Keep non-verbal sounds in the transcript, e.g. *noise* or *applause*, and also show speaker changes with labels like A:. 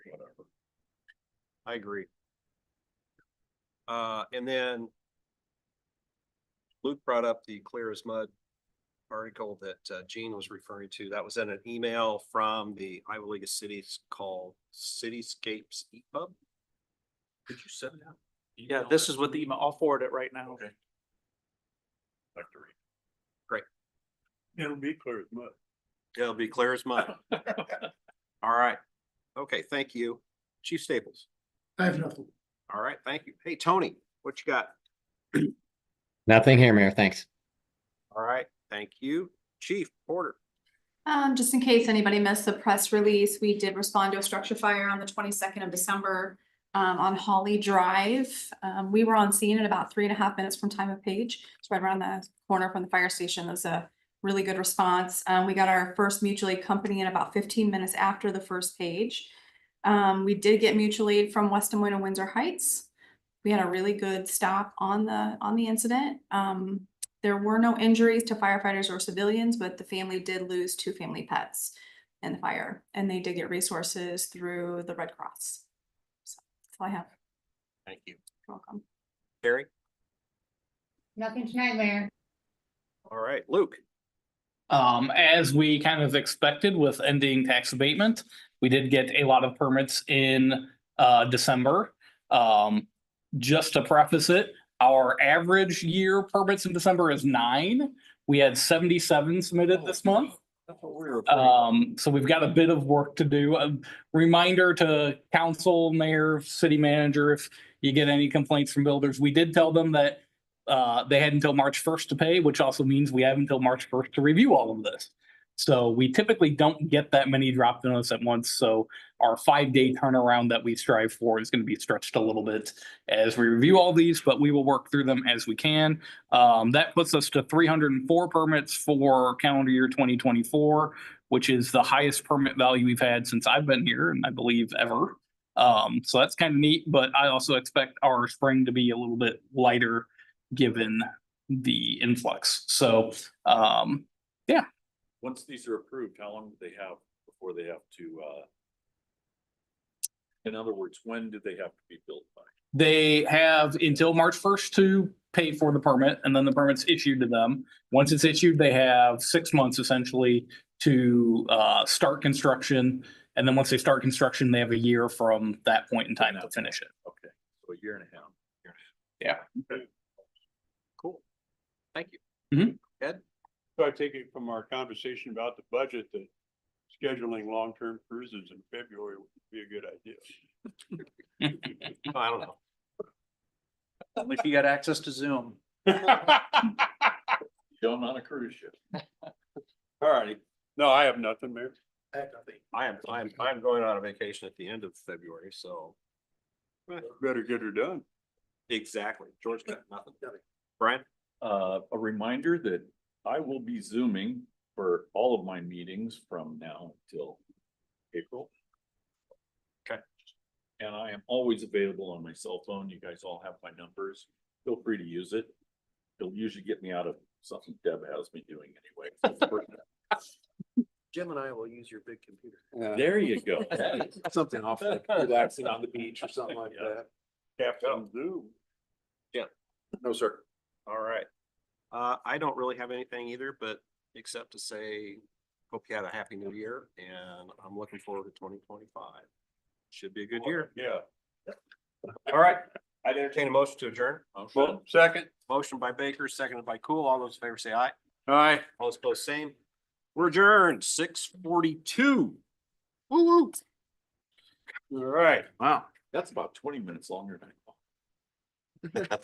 A: I agree. Uh, and then Luke brought up the clear as mud article that uh, Gene was referring to. That was in an email from the Iowa League of Cities called Cityscapes Eat Pub.
B: Could you send that?
C: Yeah, this is what the email, I'll forward it right now.
B: Okay. Factory.
A: Great.
B: It'll be clear as mud.
A: It'll be clear as
B: *laughs*
A: mud. All right. Okay, thank you. Chief Staples.
D: I have nothing.
A: All right, thank you. Hey, Tony, what you got?
E: Nothing here, Mayor. Thanks.
A: All right, thank you. Chief Porter.
F: Um, just in case anybody missed the press release, we did respond to a structure fire on the twenty-second of December um, on Holly Drive. Um, we were on scene in about three and a half minutes from time of page. It's right around the corner from the fire station. That was a really good response. Um, we got our first mutual aid company in about fifteen minutes after the first page. Um, we did get mutual aid from West Des Moines and Windsor Heights. We had a really good stop on the, on the incident. Um, there were no injuries to firefighters or civilians, but the family did lose two family pets in the fire, and they did get resources through the Red Cross. So, that's all I have.
A: Thank you.
F: You're welcome.
A: Terry.
G: Nothing tonight, Mayor.
A: All right, Luke.
C: Um, as we kind of expected with ending tax abatement, we did get a lot of permits in uh December. Um, just to preface it, our average year permits in December is nine. We had seventy-seven submitted this
A: Oh,
C: month. Um, so we've got a bit of work to do. A reminder to council, mayor, city manager, if you get any complaints from builders, we did tell them that uh, they had until March first to pay, which also means we have until March first to review all of this. So we typically don't get that many dropped on us at once, so our five-day turnaround that we strive for is gonna be stretched a little bit as we review all these, but we will work through them as we can. Um, that puts us to three hundred and four permits for calendar year twenty twenty-four, which is the highest permit value we've had since I've been here, and I believe ever. Um, so that's kind of neat, but I also expect our spring to be a little bit lighter given the influx. So, um,
B: Once these are approved, how long do they have before they have to, uh? In other words, when do they have to be built by?
C: they have until March first to pay for the permit and then the permit's issued to them. Once it's issued, they have six months essentially to, uh, start construction. And then once they start construction, they have a year from that point in time to finish it.
B: Okay, so a year and a half.
A: Cool. Thank you.
H: So I take it from our conversation about the budget that scheduling long-term cruises in February would be a good idea.
A: I don't know.
C: If you got access to Zoom.
A: *laughs*
B: Going on a cruise ship. All righty.
H: No, I have nothing, Mayor.
A: I am, I am, I'm going on a vacation at the end of February, so.
H: Better get her done.
A: Exactly. George got nothing. Brian?
B: Uh, a reminder that I will be zooming for all of my meetings from now till April.
A: Okay.
B: And I am always available on my cell phone. You guys all have my numbers. Feel free to use it. It'll usually get me out of something Deb has me doing anyway.
A: Jim and I will use your big computer.
B: There you go.
D: Something off, like relaxing on the beach or something like
B: Yeah.
D: that.
H: Captain Zoom.
D: No, sir.
A: All right. Uh, I don't really have anything either, but except to say, hope you had a happy new year and I'm looking forward to twenty twenty-five. Should be a good year.
H: Yeah.
A: All right. I'd entertain a motion to adjourn.
H: Well, second.
A: Uh, Motion by Baker, seconded by Cool. All those in favor say aye.
H: All right.
A: All those opposed, same. We're adjourned, six forty-two.
H: All right.
B: That's about twenty minutes longer than I thought.